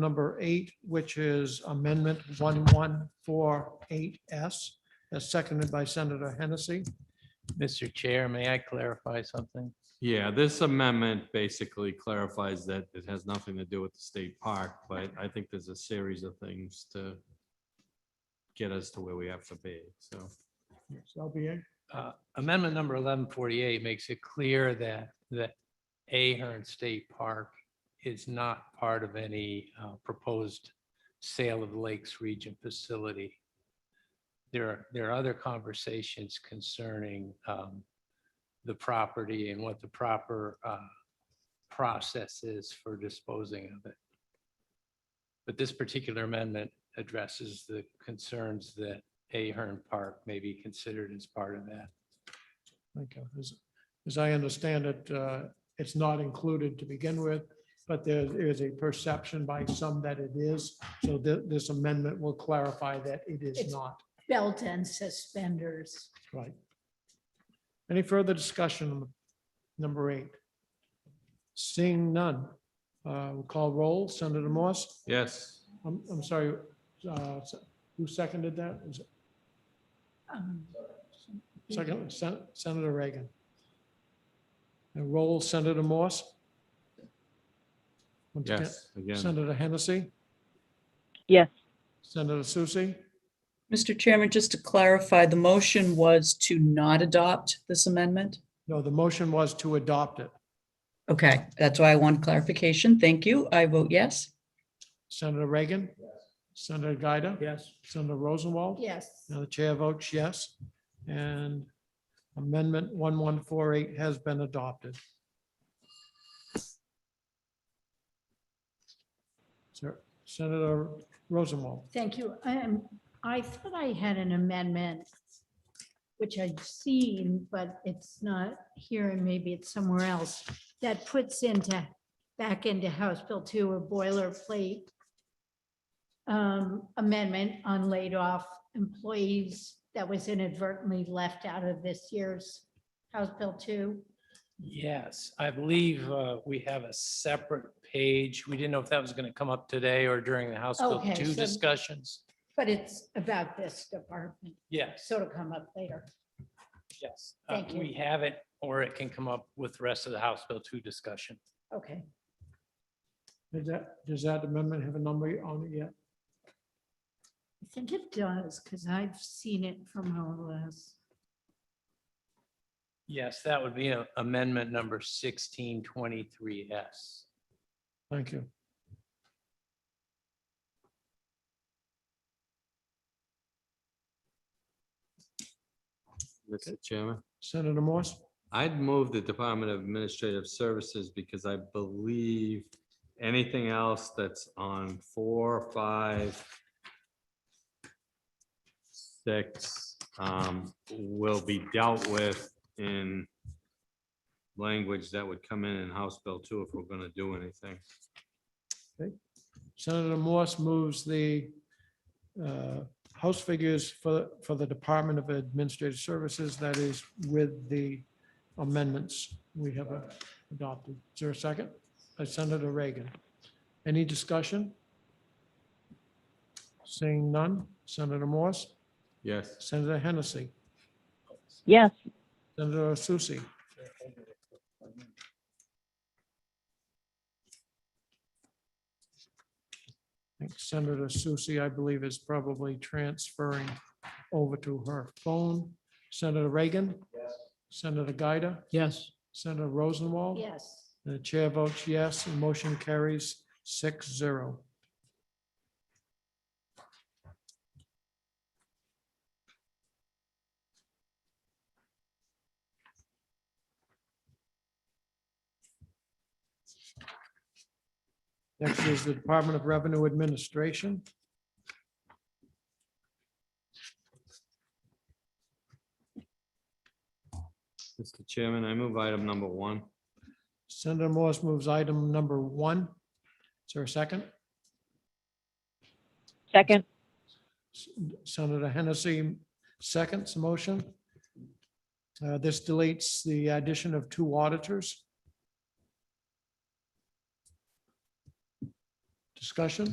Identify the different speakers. Speaker 1: number eight, which is amendment 1148S, as seconded by Senator Hennessy.
Speaker 2: Mr. Chair, may I clarify something?
Speaker 3: Yeah, this amendment basically clarifies that it has nothing to do with the state park, but I think there's a series of things to get us to where we have to be, so.
Speaker 1: Yes, LBA?
Speaker 2: Uh, Amendment number eleven forty-eight makes it clear that, that Ahern State Park is not part of any uh, proposed sale of Lakes Region facility. There are, there are other conversations concerning um, the property and what the proper uh, process is for disposing of it. But this particular amendment addresses the concerns that Ahern Park may be considered as part of that.
Speaker 1: Okay, as, as I understand it, uh, it's not included to begin with, but there is a perception by some that it is. So thi- this amendment will clarify that it is
Speaker 4: It's-
Speaker 1: not,
Speaker 4: belt and suspenders.
Speaker 1: right? Any further discussion on number eight? Seeing none, uh, we'll call roll. Senator Morse,
Speaker 3: Yes,
Speaker 1: I'm, I'm sorry, uh, se- who seconded that? Was it
Speaker 4: um, Mm-hmm.
Speaker 1: Second, Sen- Senator Reagan. And roll Senator Morse. Once again,
Speaker 3: yes, again,
Speaker 1: Senator Hennessy,
Speaker 5: Yes,
Speaker 1: Senator Susie,
Speaker 6: Mr. Chairman, just to clarify, the motion was to not adopt this amendment?
Speaker 1: no, the motion was to adopt it.
Speaker 6: Okay, that's why I want clarification. Thank you. I vote yes.
Speaker 1: Senator Reagan. Senator Gaida.
Speaker 2: Yes.
Speaker 1: Senator Rosenwald.
Speaker 4: Yes,
Speaker 1: Now the chair votes yes, and amendment 1148 has been adopted. Sir- Senator Rosenwald.
Speaker 4: thank you. Um, I thought I had an amendment, which I'd seen, but it's not here and maybe it's somewhere else, that puts into, back into House Bill 2 a boilerplate um, amendment on laid off employees that was inadvertently left out of this year's House Bill 2.
Speaker 2: Yes, I believe uh, we have a separate page. We didn't know if that was going to come up today or during the House Bill
Speaker 4: Okay,
Speaker 2: 2
Speaker 4: so-
Speaker 2: discussions.
Speaker 4: But it's about this department,
Speaker 2: Yes,
Speaker 4: so it'll come up later.
Speaker 2: yes. Uh,
Speaker 4: Thank you.
Speaker 2: We have it, or it can come up with the rest of the House Bill 2 discussion.
Speaker 4: Okay,
Speaker 1: Does that, does that amendment have a number on it yet?
Speaker 4: I think it does, because I've seen it from our last.
Speaker 2: Yes, that would be uh, amendment number 1623S.
Speaker 1: Thank you.
Speaker 3: Mr. Chairman.
Speaker 1: Senator Morse,
Speaker 3: I'd move the Department of Administrative Services because I believe anything else that's on four, five, six, um, will be dealt with in language that would come in in House Bill two if we're gonna do anything.
Speaker 1: Senator Morse moves the uh, House figures for, for the Department of Administrative Services, that is with the amendments we have uh, adopted. Is there a second? By Senator Reagan. Any discussion? Seeing none. Senator Morse,
Speaker 3: Yes.
Speaker 1: Senator Hennessy,
Speaker 5: yes,
Speaker 1: Senator Susie. I think Senator Susie, I believe, is probably transferring over to her phone. Senator Reagan? Yes. Senator Gaida?
Speaker 2: Yes.
Speaker 1: Senator Rosenwald?
Speaker 4: Yes,
Speaker 1: The chair votes yes, and motion carries six zero. Next is the Department of Revenue Administration.
Speaker 3: Mr. Chairman, I move item number one.
Speaker 1: Senator Morse moves item number one. Is there a second?
Speaker 5: second,
Speaker 1: Senator Hennessy seconds the motion. Uh, This deletes the addition of two auditors. Discussion?